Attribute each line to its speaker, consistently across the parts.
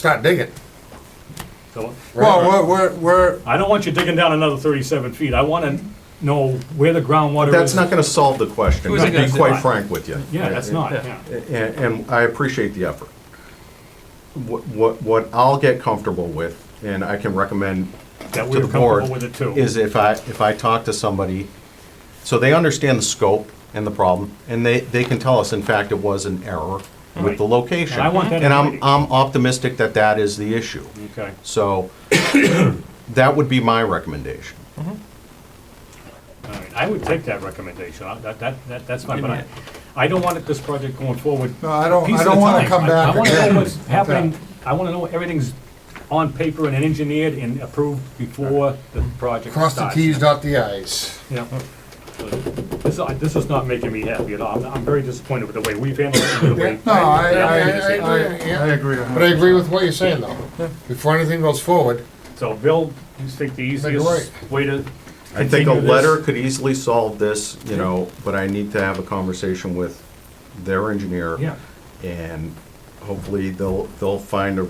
Speaker 1: start digging.
Speaker 2: So,
Speaker 1: Well, we're, we're, we're,
Speaker 2: I don't want you digging down another thirty-seven feet, I wanna know where the groundwater is.
Speaker 3: That's not gonna solve the question,
Speaker 4: Who's
Speaker 3: to
Speaker 4: it gonna
Speaker 3: be
Speaker 4: do?
Speaker 3: quite frank with you.
Speaker 2: Yeah, that's not, yeah.
Speaker 3: And, and I appreciate the effort. What, what, what I'll get comfortable with, and I can recommend to
Speaker 2: That we're
Speaker 3: the board,
Speaker 2: comfortable with it too.
Speaker 3: is if I, if I talk to somebody, so they understand the scope and the problem, and they, they can tell us, in fact, it was an error with
Speaker 2: Right.
Speaker 3: the location.
Speaker 2: And I want that in
Speaker 3: And I'm,
Speaker 2: writing.
Speaker 3: I'm optimistic that that is the issue.
Speaker 2: Okay,
Speaker 3: So, that would be my recommendation.
Speaker 2: all right, I would take that recommendation, I- that, that, that- that's fine, but I, I don't want it- this project going forward.
Speaker 1: No, I don't-
Speaker 2: piece
Speaker 1: I
Speaker 2: at a
Speaker 1: don't wanna
Speaker 2: time.
Speaker 1: come
Speaker 2: I-
Speaker 1: back
Speaker 2: I wanna
Speaker 1: again.
Speaker 2: know what's happening, I wanna know everything's on paper and engineered and approved before the project starts.
Speaker 1: cross the Ts, dot the Is.
Speaker 2: Yeah. This, I- this is not making me happy at all. I'm- I'm very disappointed with the way we've handled it. and the way-
Speaker 1: No, I, I, I,
Speaker 2: Yeah.
Speaker 1: I, yeah.
Speaker 5: agree a
Speaker 1: but I agree with what you're saying though. Before anything goes forward,
Speaker 2: So Bill, you think the
Speaker 1: you're
Speaker 2: easiest way to
Speaker 3: I think a
Speaker 2: continue this-
Speaker 3: letter could easily solve this, you know, but I need to have a conversation with their engineer.
Speaker 2: Yeah.
Speaker 3: And hopefully they'll, they'll find a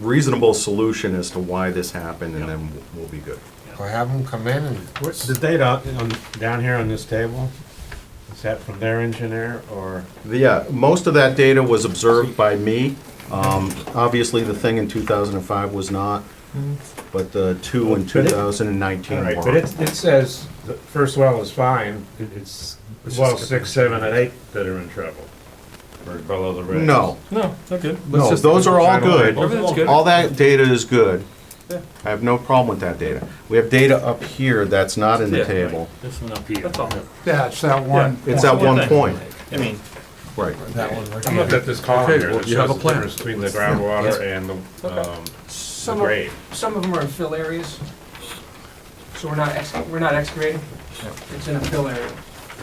Speaker 3: reasonable solution as to why this happened and then we'll be good.
Speaker 1: or have them come in and,
Speaker 5: What's the data on, down here on this table? Is that from their engineer or?
Speaker 3: The, Yeah, most of that data was observed by me. Um, Obviously, the thing in 2005 was not, but the two in
Speaker 5: Mm-hmm. But it-
Speaker 3: 2019
Speaker 5: All right,
Speaker 3: were.
Speaker 5: but it, it says the first well is fine, It- it's well six, seven, and eight that are in trouble. Or below the red.
Speaker 3: No,
Speaker 4: No, okay.
Speaker 3: no, those are all good.
Speaker 4: Everything's good.
Speaker 3: All that data is good. I have no problem with that data. We have data up here that's not in the
Speaker 4: Yeah.
Speaker 3: table.
Speaker 2: This one up here.
Speaker 4: That's all.
Speaker 1: yeah, it's that one.
Speaker 3: It's at one point,
Speaker 4: I mean,
Speaker 3: right.
Speaker 5: I'm looking at this column
Speaker 4: Okay,
Speaker 5: here
Speaker 4: well,
Speaker 5: that
Speaker 4: you have
Speaker 5: shows the
Speaker 4: a plan.
Speaker 5: difference between the groundwater and the, um,
Speaker 6: Some
Speaker 5: grade.
Speaker 6: of, some of them are in fill areas, so we're not, ex- we're not excavating. It's in a fill area.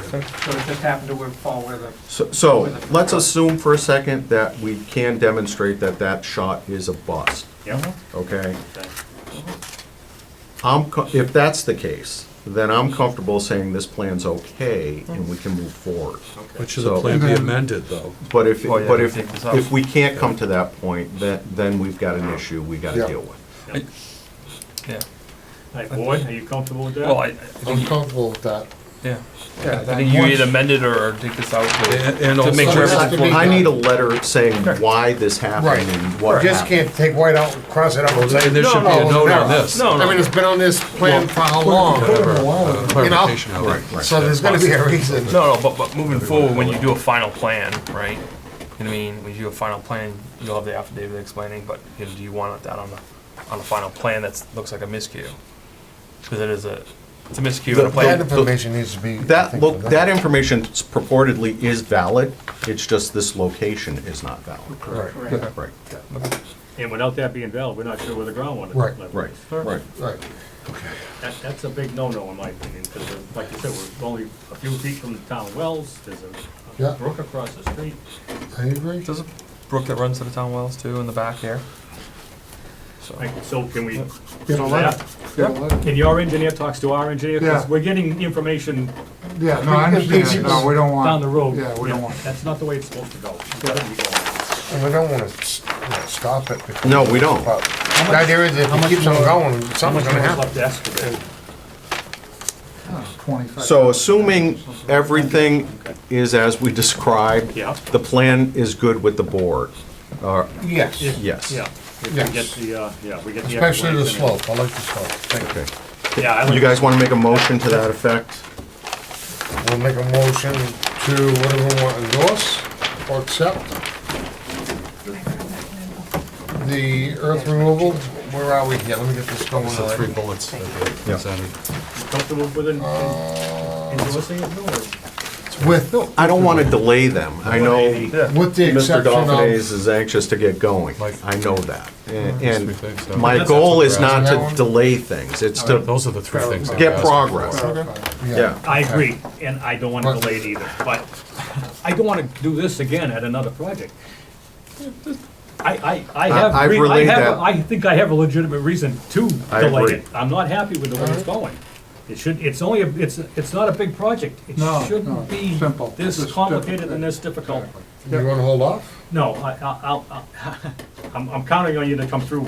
Speaker 6: So it just happened to where- fall where the,
Speaker 3: So- So, let's assume for a second that we can demonstrate that that shot is a bust,
Speaker 2: Yeah.
Speaker 3: okay?
Speaker 2: Okay.
Speaker 3: I'm, co- if that's the case, then I'm comfortable saying this plan's okay and we can move forward.
Speaker 4: but should
Speaker 3: So-
Speaker 4: the plan be amended, though?
Speaker 3: But if,
Speaker 7: Oh, yeah,
Speaker 3: but if,
Speaker 7: take this out.
Speaker 3: if we can't come to that point, then, then we've got an issue we gotta
Speaker 1: Yeah.
Speaker 3: deal with.
Speaker 7: Yeah,
Speaker 2: Hey, Boyd, are you comfortable with that?
Speaker 7: well, I, I
Speaker 1: I'm
Speaker 7: think,
Speaker 1: comfortable with that.
Speaker 7: yeah,
Speaker 1: Yeah,
Speaker 7: I think you either amend it or or take this out
Speaker 4: And-
Speaker 7: to
Speaker 4: and
Speaker 7: to make
Speaker 4: also-
Speaker 7: sure
Speaker 1: It has
Speaker 7: everything
Speaker 1: to be
Speaker 3: I
Speaker 1: done.
Speaker 3: need a letter saying why this
Speaker 1: Right.
Speaker 3: happened and what
Speaker 1: Just
Speaker 3: happened.
Speaker 1: can't take white out and cross it out and say.
Speaker 4: And there should be
Speaker 1: "Oh,
Speaker 4: a note on
Speaker 1: no."
Speaker 4: this.
Speaker 7: No,
Speaker 1: I mean, it's been on this plan for how long?
Speaker 4: Clarification of it.
Speaker 1: So there's gonna be a reason.
Speaker 7: No, no, but, but moving forward, when you do a final plan, right? You know what I mean, when you do a final plan, you'll have the affidavit explaining, but you know, do you want that on the, on the final plan that looks like a miscue? Because it is a, it's a miscue in a
Speaker 1: That
Speaker 7: plan.
Speaker 1: information needs to be.
Speaker 3: That, look, that information purportedly is valid, it's just this location is not valid.
Speaker 1: Right,
Speaker 6: correct.
Speaker 3: Right,
Speaker 2: And without that being valid, we're not sure where the groundwater
Speaker 1: Right.
Speaker 2: level is.
Speaker 3: right, right.
Speaker 1: right.
Speaker 2: That, that's a big no-no in my opinion, because like you said, we're only a few feet from the town wells, there's a-
Speaker 1: Yeah.
Speaker 2: a brook across the street.
Speaker 1: I agree.
Speaker 7: There's a brook that runs to the town wells too in the back here. So,
Speaker 2: Like, So can we,
Speaker 1: Get a letter. Get a letter.
Speaker 2: can your engineer talks to our engineer? 'Cause
Speaker 5: Yeah.
Speaker 2: We're getting information
Speaker 5: Yeah, no, I
Speaker 1: understand. No, we
Speaker 5: don't
Speaker 2: down the road.
Speaker 5: yeah, we don't want-
Speaker 2: That's not the way it's supposed to go. It's gotta be going.
Speaker 1: And we don't wanna s- you know, stop it. because-
Speaker 3: No, we don't.
Speaker 1: But The idea is if it keeps on going,
Speaker 2: How much
Speaker 1: something's
Speaker 2: more
Speaker 1: gonna
Speaker 2: is
Speaker 1: happen.
Speaker 2: left to excavate?
Speaker 3: So assuming everything is as we described,
Speaker 2: Yeah.
Speaker 3: the plan is good with the board, or,
Speaker 1: Yes,
Speaker 3: yes.
Speaker 2: Yeah, if we
Speaker 1: Yes.
Speaker 2: get the, uh, yeah, we get the.
Speaker 1: especially the
Speaker 2: excavation.
Speaker 1: slope, I like the slope. Thank
Speaker 3: Okay.
Speaker 2: Yeah, I
Speaker 3: You
Speaker 2: like,
Speaker 3: guys wanna make a motion to that effect?
Speaker 1: you. We'll make a motion to whatever we want to endorse or accept. The earth removal, where are we here? Let me get this going.
Speaker 4: So three bullets that they
Speaker 3: Yeah.
Speaker 4: presented.
Speaker 2: comfortable with it, endorsing it, no, or?
Speaker 1: With,
Speaker 3: I don't wanna delay them, I know
Speaker 1: with the
Speaker 3: Mr.
Speaker 1: exception of,
Speaker 3: Dolphins is anxious to get going, I know that. And-
Speaker 4: Three things, so-
Speaker 3: And my goal is not to delay things, it's to
Speaker 4: Those are the three things.
Speaker 3: get
Speaker 4: I've asked.
Speaker 3: progress, yeah.
Speaker 2: I agree, and I don't want to delay it either, but I don't want to do this again at another project. I, I, I
Speaker 3: I- I've
Speaker 2: have, re- I
Speaker 3: relayed
Speaker 2: have,
Speaker 3: that.
Speaker 2: I think I have a legitimate reason to
Speaker 3: I
Speaker 2: delay
Speaker 3: agree.
Speaker 2: it. I'm not happy with the way it's going. It should, it's only, a- it's, it's not a big project. It
Speaker 5: No, no,
Speaker 2: shouldn't be
Speaker 5: simple. This
Speaker 2: this
Speaker 5: is
Speaker 2: complicated and this difficult.
Speaker 1: you wanna hold off?
Speaker 2: No, I, I- I'll, I'll- I'm, I'm counting on you to come through